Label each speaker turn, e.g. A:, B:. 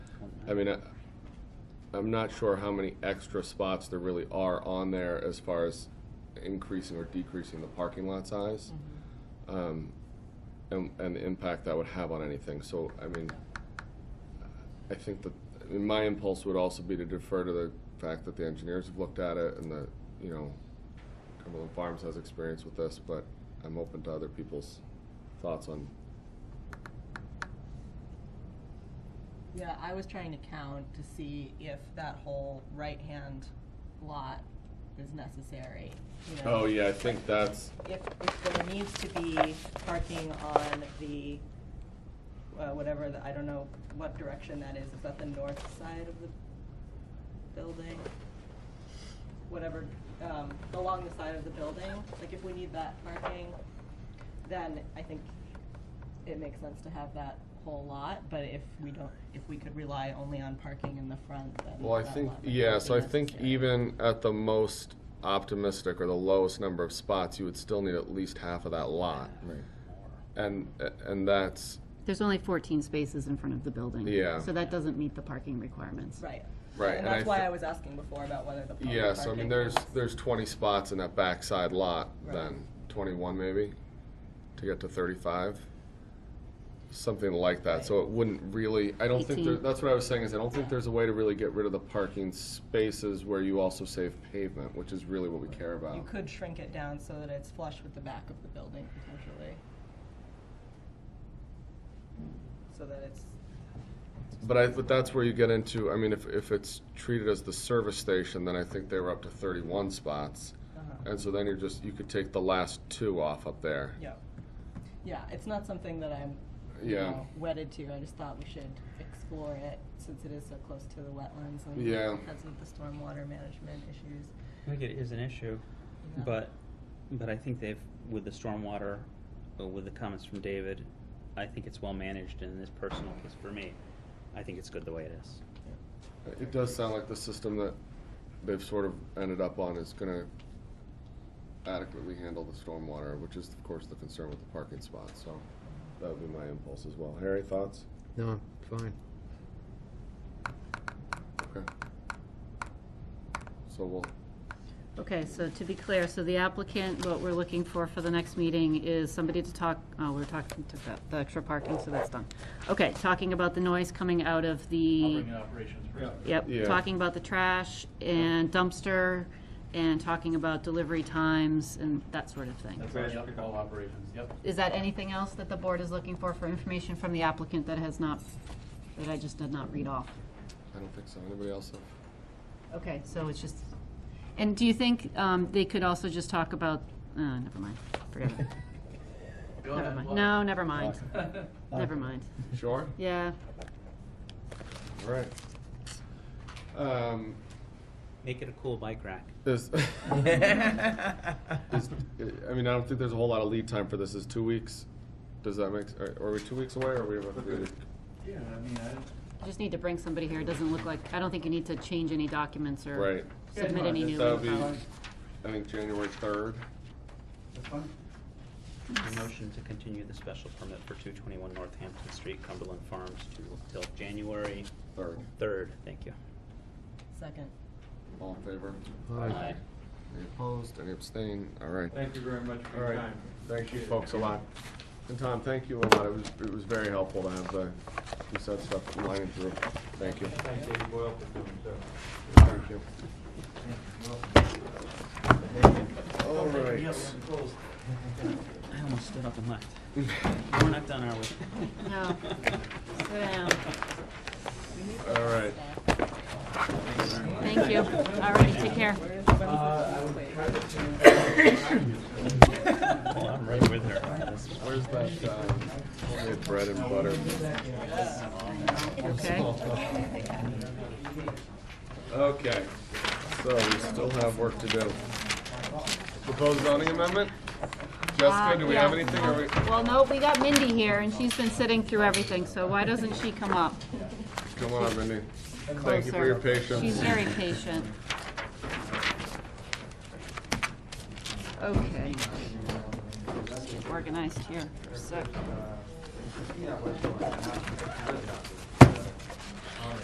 A: I mean, I, I'm not sure how many extra spots there really are on there as far as increasing or decreasing the parking lot size. Um, and, and the impact that would have on anything, so, I mean, I think that, I mean, my impulse would also be to defer to the fact that the engineers have looked at it and that, you know, Cumberland Farms has experience with this, but I'm open to other people's thoughts on,
B: Yeah, I was trying to count to see if that whole right-hand lot is necessary, you know?
A: oh, yeah, I think that's,
B: If, if there needs to be parking on the, uh, whatever, the- I don't know what direction that is, is that the north side of the building? Whatever, um, along the side of the building, like if we need that parking, then I think it makes sense to have that whole lot, but if we don't, if we could rely only on parking in the front, then
A: Well, I
B: that
A: think,
B: lot might
A: yeah,
B: not
A: so
B: be
A: I think
B: necessary.
A: even at the most optimistic or the lowest number of spots, you would still need at least half of that lot. And, and that's,
C: There's only 14 spaces in front of the building.
A: Yeah.
C: So that doesn't meet the parking requirements.
B: Right.
A: Right,
B: And
A: and I
B: that's why
A: thi-
B: I was asking before about whether the. public
A: yeah, so I mean,
B: parking
A: there's,
B: was-
A: there's twenty spots in that backside lot
B: Right.
A: then, twenty-one maybe, to get to thirty-five. Something like that, so it wouldn't really, I don't think there,
C: Eighteen.
A: that's what I was saying, is I don't think there's a way to really get rid of the parking spaces where you also save pavement, which is really what we care about.
B: You could shrink it down so that it's flush with the back of the building potentially. So that it's,
A: But I, but that's where you get into, I mean, if, if it's treated as the service station, then I think they were up to thirty-one spots.
B: uh-huh,
A: And so then you're just, you could take the last two off up there.
B: yeah. Yeah, it's not something that I'm, you
A: Yeah.
B: know, wedded to. I just thought we should explore it since it is so close to the wetlands and
A: Yeah.
B: because of the stormwater management issues.
D: I think it is an issue,
B: Yeah.
D: but, but I think they've, with the stormwater, uh, with the comments from David, I think it's well managed in this personal case for me. I think it's good the way it is.
A: It does sound like the system that they've sort of ended up on is gonna adequately handle the stormwater, which is of course the concern with the parking spots, so that would be my impulse as well. Harry, thoughts?
E: No, I'm fine.
A: Okay. So we'll,
C: Okay, so to be clear, so the applicant, what we're looking for for the next meeting is somebody to talk, oh, we're talking, took that, the extra parking, so that's done. Okay, talking about the noise coming out of the.
F: I'll bring an operations person.
A: Yeah.
C: Yep, talking about the trash and dumpster and talking about delivery times and that sort of thing.
F: That's all, yep, all operations, yep.
C: Is that anything else that the board is looking for, for information from the applicant that has not, that I just did not read off?
A: I don't think so. Anybody else have?
C: Okay, so it's just, and do you think um, they could also just talk about, uh, never mind, forget it.
F: Go
C: Never
F: ahead,
C: mind,
F: Laura.
C: no, never mind, never mind.
A: Sure?
C: Yeah,
A: All right. Um,
D: Make it a cool bike rack.
A: is, is, I mean, I don't think there's a whole lot of lead time for this. Is two weeks? Does that make, are, are we two weeks away or are we about to do?
F: Yeah, I mean, I don't.
C: you just need to bring somebody here, it doesn't look like, I don't think you need to change any documents or
A: Right.
C: submit any new
A: That would be,
C: info.
A: I think, January third.
F: That's fine.
D: A motion to continue the special permit for two twenty-one Northampton Street, Cumberland Farms, to, till January
A: Third.
D: third, thank you.
B: Second.
A: All in favor?
D: Aye.
A: Any opposed? Any abstain? All right.
F: Thank you very much for
A: All
F: your
A: right.
F: time.
A: Thank you,
F: Appreciate it.
A: folks, a lot. And Tom, thank you a lot. It was, it was very helpful to have the, you said stuff lining through. Thank you.
F: Thank David Boyle for coming, so.
A: Thank you. All right.
D: I almost stood up and left. We're not done, are we?
C: No, sit down,
A: All right.
C: thank you, all righty, take care.
F: Uh,
D: Oh, I'm right with her.
A: Where's that, um, we had bread and butter?
C: Okay.
A: Okay, so we still have work to do. Proposed zoning amendment? Jessica,
C: Uh,
A: do we have
C: yeah.
A: anything? Are we,
C: Well, no, we got Mindy here, and she's been sitting through everything, so why doesn't she come up
A: come on, Mindy.
C: closer?
A: Thank you for your patience.
C: She's very patient. Okay. Let's get Organized here for a sec.